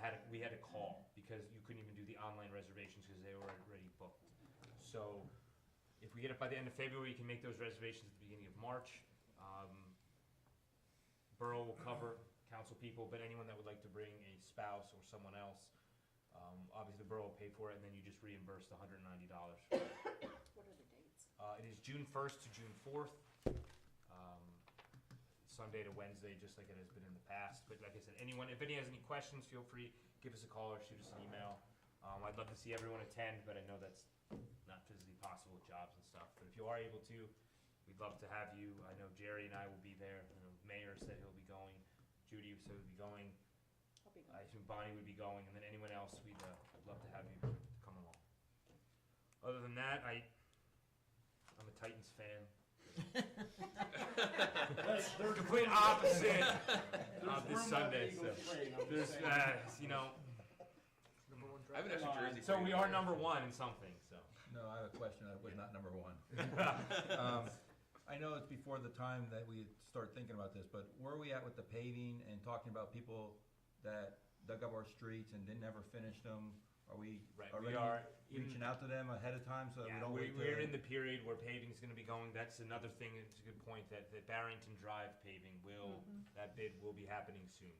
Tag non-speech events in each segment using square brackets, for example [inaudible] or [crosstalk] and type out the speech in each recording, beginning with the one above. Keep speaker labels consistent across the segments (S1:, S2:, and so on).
S1: had to call because you couldn't even do the online reservations because they were already booked. So if we get it by the end of February, you can make those reservations at the beginning of March. Um, Borough will cover council people, but anyone that would like to bring a spouse or someone else, um, obviously the borough will pay for it and then you just reimburse the hundred and ninety dollars.
S2: What are the dates?
S1: Uh, it is June first to June fourth. Um, Sunday to Wednesday, just like it has been in the past. But like I said, anyone, if any has any questions, feel free, give us a call or shoot us an email. Um, I'd love to see everyone attend, but I know that's not physically possible with jobs and stuff. But if you are able to, we'd love to have you. I know Jerry and I will be there. I know Mayor said he'll be going. Judy said he'll be going.
S2: I'll be
S1: [laughs] I
S2: gone.
S1: assume Bonnie would be going, and then anyone else, we'd uh, would love to have you come along. Other than that, I, I'm a Titans fan. Complete opposite of this Sunday, so. There's, uh, you know,
S3: I have an extra jersey.
S1: so
S3: for
S1: we
S3: you.
S1: are
S3: [laughs]
S1: number one in something, so.
S4: No, I have a question, that was not number
S1: [laughs]
S4: one. Um, I know it's before the time that we start thinking about this, but where are we at with the paving and talking about people that dug up our streets and didn't ever finish them? Are we
S1: Right, we
S4: already
S1: are in-
S4: reaching out to them ahead of time so that we
S1: Yeah,
S4: don't
S1: we,
S4: wait
S1: we're in
S4: till?
S1: the period where paving's gonna be going, that's another thing, it's a good point, that, that Barrington Drive paving will,
S2: Mm-hmm.
S1: that bid will be happening soon.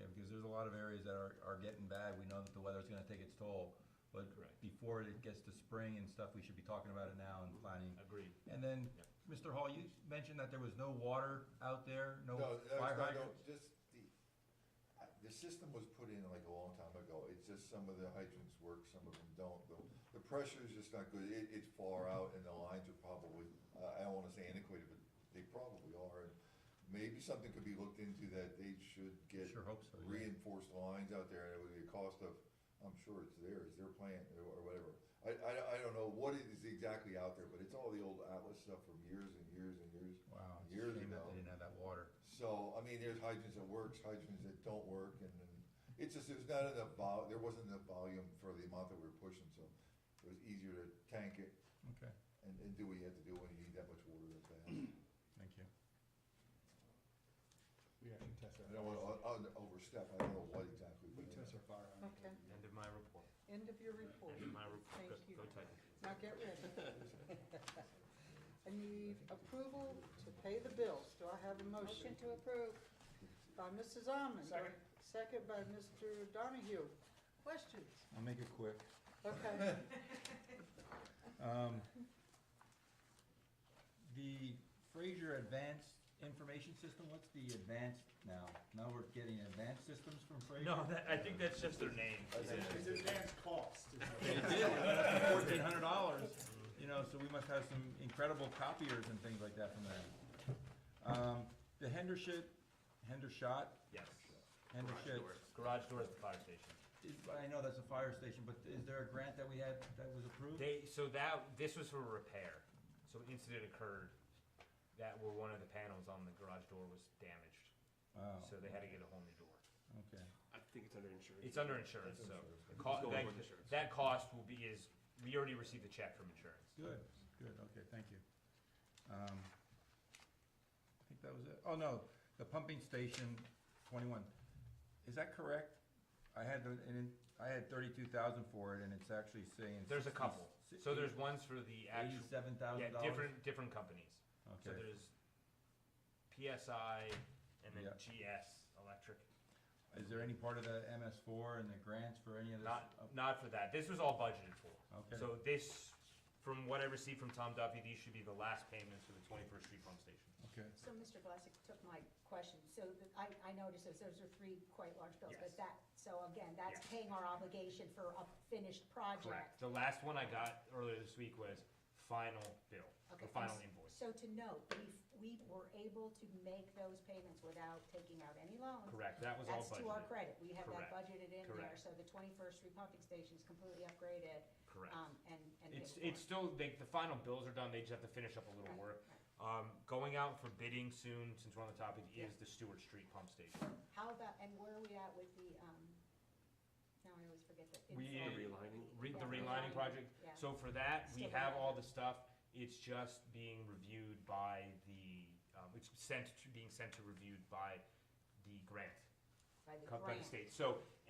S4: Okay, because there's a lot of areas that are, are getting bad, we know that the weather's gonna take its toll, but
S1: Correct.
S4: before it gets to spring and stuff, we should be talking about it now and planning.
S1: Agreed.
S4: And then, Mr. Hall, you mentioned that there was no water out there, no
S5: No, that's
S4: fire
S5: not,
S4: hydrants?
S5: no, just the, I- the system was put in like a long time ago, it's just some of the hydrants work, some of them don't. The- The pressure is just not good, it, it's far out and the lines are probably, uh, I don't wanna say antiquated, but they probably are. And Maybe something could be looked into that they should get
S4: Sure hope so, yeah.
S5: reinforced lines out there and it would be a cost of, I'm sure it's theirs, their plant or- or whatever. I, I, I don't know what it is exactly out there, but it's all the old Atlas stuff from years and years and years.
S4: Wow, it's a
S5: years
S4: shame that
S5: ago.
S4: they didn't have that water.
S5: So, I mean, there's hydrants that works, hydrants that don't work, and, and it's just, there's not enough vol, there wasn't enough volume for the amount that we were pushing, so it was easier to tank it
S4: Okay,
S5: and, and do what you had to do when you need that much water that fast.
S4: thank you.
S6: We actually test
S5: I don't wanna,
S6: our,
S5: o- o- overstep, I don't know what exactly.
S6: we
S5: but-
S6: test our fire hydrants.
S2: Okay,
S1: End of my report,
S2: end of your report.
S1: end of my report,
S2: Thank you.
S1: go Titans.
S2: Now get ready.
S1: [laughs]
S2: I need approval to pay the bills. Do I have a motion?
S7: Motion to approve.
S2: By Mrs. Almond.
S6: Second.
S2: Second by Mr. Donahue. Questions?
S4: I'll make it quick.
S2: Okay,
S4: Um, The Fraser Advanced Information System, what's the advanced now? Now we're getting advanced systems from Fraser?
S1: No, that, I think that's just their name.
S6: It's advanced cost. is what-
S4: [laughs] Fourteen hundred dollars, you know, so we must have some incredible copiers and things like that from them. Um, The Hendershot, Hendershot,
S1: Yes.
S4: Hendershot,
S1: Garage doors at the fire station.
S4: is- I know that's a fire station, but is there a grant that we had that was approved?
S1: They, so that, this was for repair. So an incident occurred that where one of the panels on the garage door was damaged.
S4: Oh,
S1: So they had to get a whole new door.
S4: okay.
S3: I think it's under insurance.
S1: It's under insurance, so the
S3: It's
S1: co-
S3: going with
S1: that,
S3: insurance.
S1: that cost will be is, we already received a check from insurance.
S4: Good, good, okay, thank you. Um, I think that was it. Oh, no, the pumping station, twenty-one. Is that correct? I had, the- and it- I had thirty-two thousand for it, and it's actually saying.
S1: There's a couple. So there's ones for the actual,
S4: Eighty-seven
S1: yeah,
S4: thousand dollars?
S1: different, different companies. So
S4: Okay,
S1: there's PSI and then
S4: Yeah.
S1: GS Electric.
S4: is there any part of the MS four and the grants for any of this? Oh,
S1: Not, not for that. This was all budgeted for.
S4: Okay.
S1: So this, from what I received from Tom Duffy, these should be the last payments for the twenty-first street pump station.
S4: Okay,
S7: So Mr. Glassick took my question, so the- I, I noticed those, those are three quite large bills,
S1: Yes.
S7: but that, so again, that's
S1: Yes.
S7: paying our obligation for a finished project.
S1: The last one I got earlier this week was final bill,
S7: Okay,
S1: the
S7: and
S1: final
S7: s-
S1: invoice.
S7: So to note, we, we were able to make those payments without taking out any loans.
S1: Correct, that was all
S7: That's to our
S1: budgeted.
S7: credit, we have that
S1: Correct.
S7: budgeted in there,
S1: Correct.
S7: so the twenty-first repumping station's completely upgraded.
S1: Correct.
S7: um, And, and.
S1: It's,
S7: paid for.
S1: it's still, they, the final bills are done, they just have to finish up a little
S7: Right,
S1: work.
S7: right.
S1: Um, going out for bidding soon, since we're on the topic,
S7: Yeah.
S1: is the Stewart Street pump station.
S7: How about, and where are we at with the, um, now I always forget the.
S1: We-
S7: inside-
S1: The
S3: relining?
S1: Re, the
S7: Yeah,
S1: relining project,
S7: yeah.
S1: so for that, we
S7: Still
S1: have all
S7: there.
S1: the stuff, it's just being reviewed by the, um, it's sent, to- being sent to reviewed by the grant,
S7: By the
S1: co- by the state.
S7: grant.
S1: So